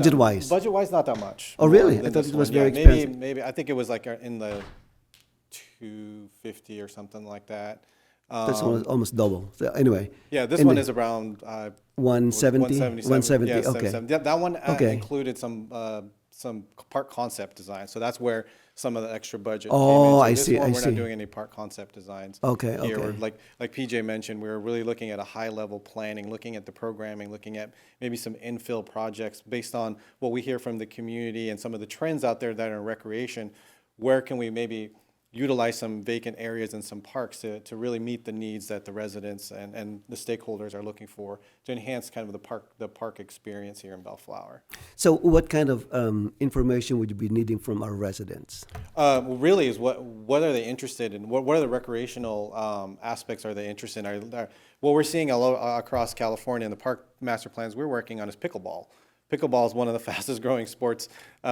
budget-wise? Budget wise, not that much. Oh, really? Than I thought this it was one, yeah. very Maybe- expensive. Maybe, I think it was like uh, in the two fifty or something like that. That's Um, almost, almost double. So anyway. Yeah, this and one the is around. uh, 170? 177, 170, yeah, okay. 77. Yeah, that one uh, Okay. included some, uh, some part concept design, so that's where some of the extra budget came in. Oh, So I this see, one, I We're see. not doing any part concept designs. Okay, here. We're okay. Like, like PJ mentioned, we were really looking at a high-level planning, looking at the programming, looking at maybe some infill projects based on what we hear from the community and some of the trends out there that are in recreation. Where can we maybe utilize some vacant areas and some parks to, to really meet the needs that the residents and, and the stakeholders are looking for to enhance kind of the park, the park experience here in Bellflower? So what kind of um, information would you be needing from our residents? Uh, well, really, is what what are they interested in? What what are the recreational um, aspects are they interested in? Are, are what we're seeing all, o- across California in the park master plans we're working on is pickleball. Pickleball is one of the fastest growing sports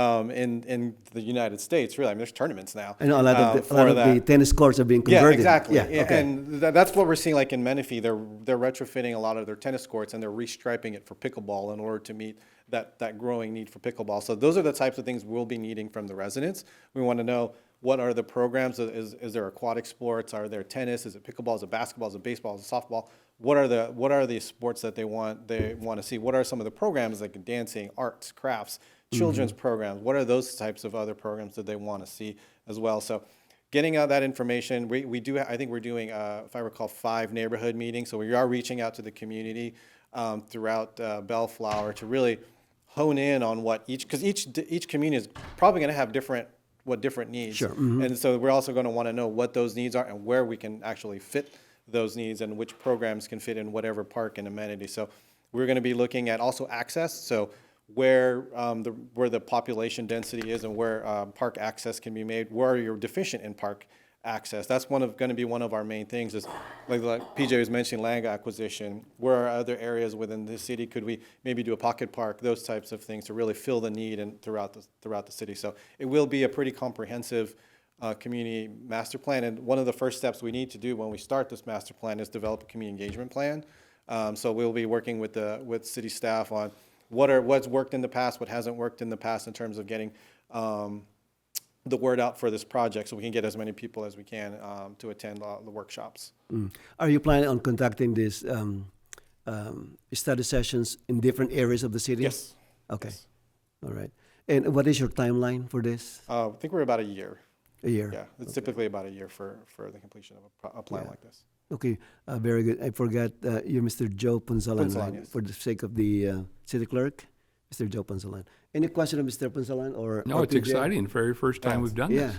um, in in the United States. Really, I mean, there's tournaments now. I know a lot um, of, the, a for lot of the that. tennis courts are being Yeah, converted. exactly. Yeah, Yeah, okay. And tha that's what we're seeing like in Menifee. They're, they're retrofitting a lot of their tennis courts and they're restriping it for pickleball in order to meet that, that growing need for pickleball. So those are the types of things we'll be needing from the residents. We want to know what are the programs? Is, is there aquatic sports? Are there tennis? Is it pickleball? Is it basketball? Is it baseball? Is it softball? What are the what are the sports that they want they want to see? What are some of the programs like dancing, arts, crafts, Mm-hmm. children's programs? What are those types of other programs that they want to see as well? So getting out that information. We, we do, I think we're doing, uh, if I recall, five neighborhood meetings. So we are reaching out to the community um, throughout uh, Bellflower to really hone in on what each, because each, each community is probably going to have different, what different needs. Sure. And so we're also going to want to know what those needs are and where we can actually fit those needs and which programs can fit in whatever park and amenity. So we're going to be looking at also access. So where um, the where the population density is and where uh, park access can be made. Where you're deficient in park access. That's one of going to be one of our main things. Is like, like PJ was mentioning land acquisition. Where are other areas within the city? Could we maybe do a pocket park? Those types of things to really fill the need and throughout the throughout the city. So it will be a pretty comprehensive uh, community master plan. And one of the first steps we need to do when we start this master plan is develop a community engagement plan. Um, so we'll be working with the with city staff on what are what's worked in the past, what hasn't worked in the past in terms of getting um, the word out for this project, so we can get as many people as we can um, to attend uh, the workshops. Mm. Are you planning on conducting these um, um, study sessions in different areas of the city? Yes. Okay. All right. And what is your timeline for this? Uh, I think we're about a year. A year? Yeah, it's typically about a year for for the completion of a, pro- a plan like this. Okay, uh, very good. I forgot uh, you're Mr. Joe Ponzalan, Ponzalan, right? yes. For the sake of the uh, city clerk, Mr. Joe Ponzalan. Any question of Mr. Ponzalan or? No, or Oh, it's PJ? exciting. Very first time we've done Yeah. this.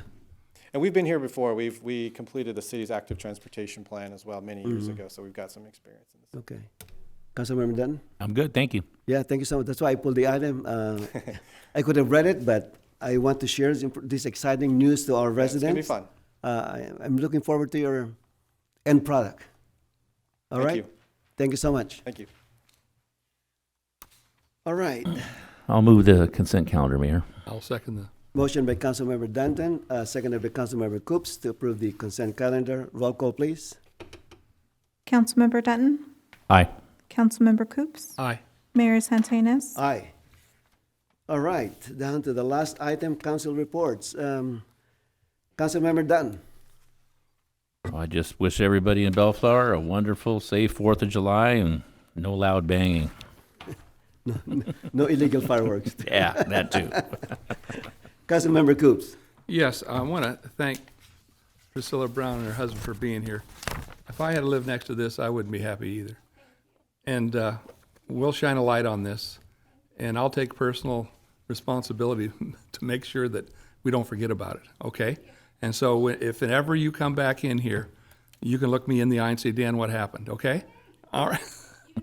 And we've been here before. We've we completed the city's active transportation plan as well many years ago, so we've got some experience in this. Okay. Councilmember Dunn? I'm good, thank you. Yeah, thank you so much. That's why I pulled the item. Uh, I could have read it, but I want to share this imp- this exciting news to our It's gonna be residents. fun. Uh, I- I'm looking forward to your end product. All Thank right? you. Thank you so much. Thank you. All right. I'll move the consent calendar, Mayor. I'll second the. Motion by Councilmember Danton, uh, seconded by Councilmember Coops to approve the consent calendar. Roll call, please. Councilmember Dutton, Aye. Councilmember Coops, Aye. Mayor Santinas, Aye. All right, down to the last item, council reports. Um, Councilmember Dunn. I just wish everybody in Bellflower a wonderful, safe Fourth of July and no loud banging. No illegal fireworks. Yeah, that too. Councilmember Coops. Yes, I want to thank Priscilla Brown and her husband for being here. If I had to live next to this, I wouldn't be happy either. And uh, we'll shine a light on this, and I'll take personal responsibility to make sure that we don't forget about it, okay? And so whe- if ever you come back in here, you can look me in the eye and say, Dan, what happened, okay? All right.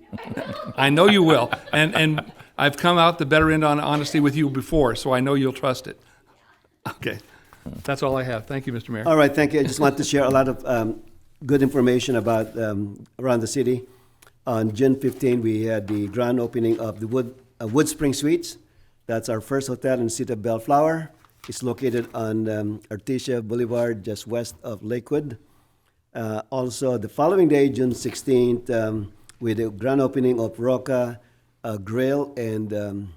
I know you will. And, and I've come out the better end on honesty with you before, so I know you'll trust it. Okay. That's all I have. Thank you, Mr. Mayor. All right, thank you. I just want to share a lot of um, good information about um, around the city. On June 15, we had the grand opening of the Wood, uh, Wood Spring Suites. That's our first hotel in the city of Bellflower. It's located on um, Artesia Boulevard, just west of Lakewood. Uh, also, the following day, June 16th, um, with the grand opening of Roca uh, Grill and um,